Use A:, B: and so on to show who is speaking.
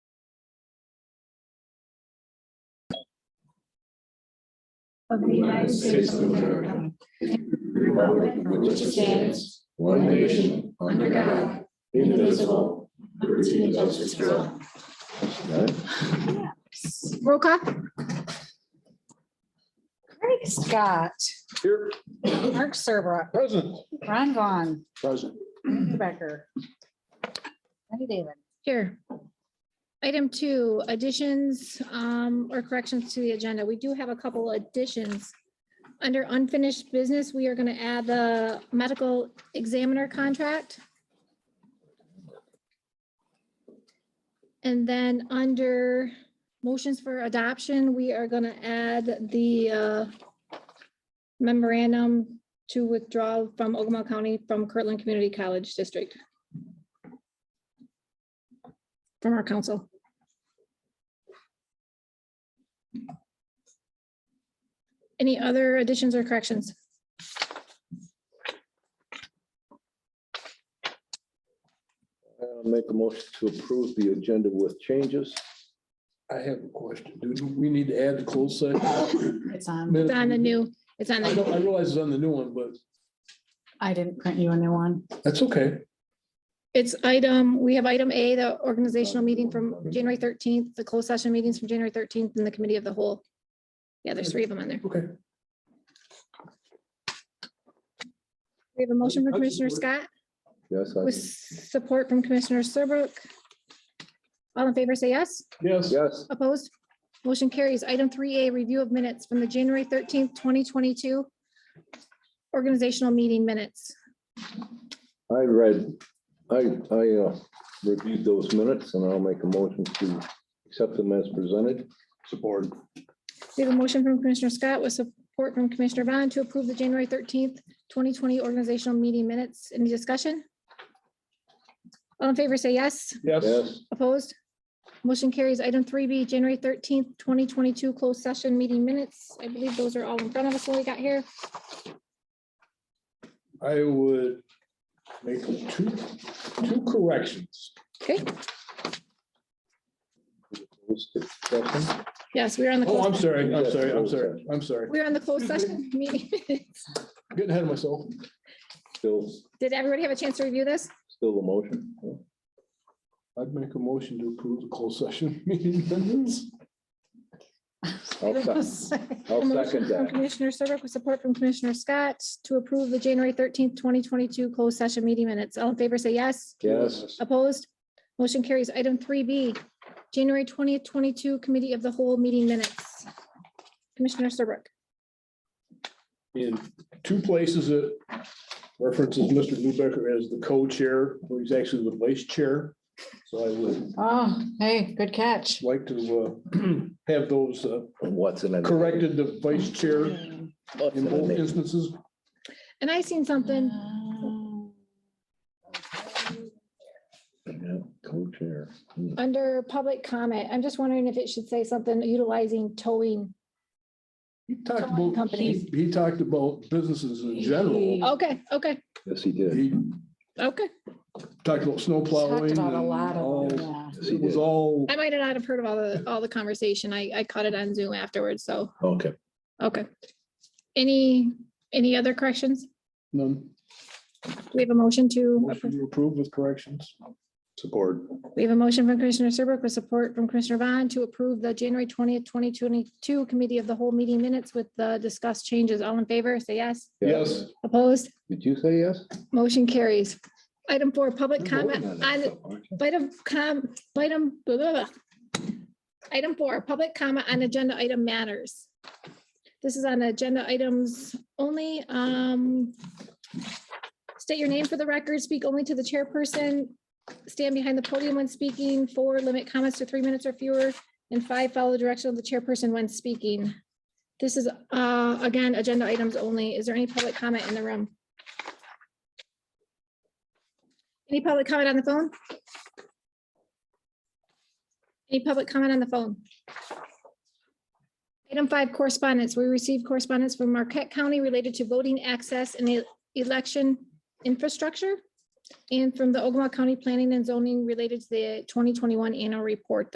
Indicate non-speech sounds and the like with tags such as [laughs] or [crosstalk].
A: of the United States of America.
B: Republic which stands, one nation, under God, indivisible, liberty and justice for all. Got it?
C: Roll call. Craig Scott. Here. Mark Serbrook. Present. Ron Vaughn. Present. Andrew Becker. Jenny David.
D: Here. Item two, additions um, or corrections to the agenda. We do have a couple additions. Under unfinished business, we are going to add the medical examiner contract. And then under motions for adoption, we are going to add the uh, memorandum to withdraw from Ogama County from Kirtland Community College District from our council. Any other additions or corrections?
B: I'll make a motion to approve the agenda with changes.
E: I have a question. Do we need to add the closed session?
C: It's on.
E: Minutes?
D: It's on the new, it's on
E: I
D: the,
E: know, I realize it's on the new one, but
C: I didn't print you a new one.
E: that's okay.
D: it's item, we have item A, the organizational meeting from January thirteenth, the closed session meetings from January thirteenth and the committee of the whole. Yeah, there's three of them on there.
E: Okay.
D: We have a motion from Commissioner Scott
B: Yes, I,
D: with support from Commissioner Serbrook. All in favor, say yes.
E: Yes.
B: yes,
D: Opposed? Motion carries. Item three A, review of minutes from the January thirteenth, twenty twenty-two organizational meeting minutes.
B: I read, I, I uh, reviewed those minutes and I'll make a motion to accept them as presented.
E: Support.
D: We have a motion from Commissioner Scott with support from Commissioner Bond to approve the January thirteenth, twenty twenty organizational meeting minutes. Any discussion? All in favor, say yes.
E: Yes.
B: Yes,
D: Opposed? Motion carries. Item three B, January thirteenth, twenty twenty-two closed session meeting minutes. I believe those are all in front of us when we got here.
E: I would make two, two corrections.
D: Okay,
B: Those discussion?
D: yes, we're on the,
E: Oh, I'm
D: closed-
E: sorry, I'm sorry, I'm sorry, I'm sorry.
D: we're on the closed session meeting [laughs] minutes.
E: Getting ahead of myself.
B: still,
D: Did everybody have a chance to review this?
B: still the motion.
E: I'd make a motion to approve the closed session [laughs] meeting minutes.
B: I'll sec- I'll
D: From
B: second that.
D: Commissioner Serbrook with support from Commissioner Scott to approve the January thirteenth, twenty twenty-two closed session meeting minutes. All in favor, say yes.
B: Yes,
D: Opposed? Motion carries. Item three B, January twentieth, twenty-two Committee of the Whole Meeting Minutes. Commissioner Serbrook.
E: in two places it references Mr. Newbecker as the co-chair, where he's actually the vice chair. So I would
C: Oh, hey, good catch.
E: like to uh, [clears throat] have those uh,
B: what's in it?
E: corrected, the vice chair in
B: What's in
E: both
B: it?
E: instances.
D: And I seen something.
B: Yeah, Co-chair. Hmm.
D: Under public comment, I'm just wondering if it should say something utilizing towing.
E: He talked
D: Towing
E: about,
D: companies.
E: he he talked about businesses in general.
D: Okay, okay,
B: Yes, he did.
E: He
D: okay.
E: talked about snow
C: Talked
E: plowing.
C: about a
E: and
C: lot of, them,
E: all-
C: yeah.
B: Yes, he
E: It was
B: did.
E: all,
D: I might not have heard of all the, all the conversation. I, I caught it on Zoom afterwards, so,
B: Okay,
D: okay. Any, any other corrections?
E: none,
D: Do we have a motion to,
E: um, motion to approve with corrections. Support.
D: we have a motion from Commissioner Serbrook with support from Commissioner Bond to approve the January twentieth, twenty twenty-two committee of the whole meeting minutes with the discussed changes. All in favor, say yes.
E: Yes.
D: Opposed?
B: did you say yes?
D: Motion carries. Item four, public
B: You're voting
D: comment
B: on that
D: on,
B: stuff, aren't you?
D: item, com, item, blah, blah, blah. Item four, public comment on agenda item matters. This is on agenda items only. Um, State your name for the record, speak only to the chairperson, stand behind the podium when speaking, four, limit comments to three minutes or fewer, and five, follow the direction of the chairperson when speaking. This is, uh, again, agenda items only. Is there any public comment in the room? Any public comment on the phone? Any public comment on the phone? Item five, correspondence. We received correspondence from Marquette County related to voting access and e- election infrastructure and from the Ogama County Planning and Zoning related to the twenty twenty-one annual report.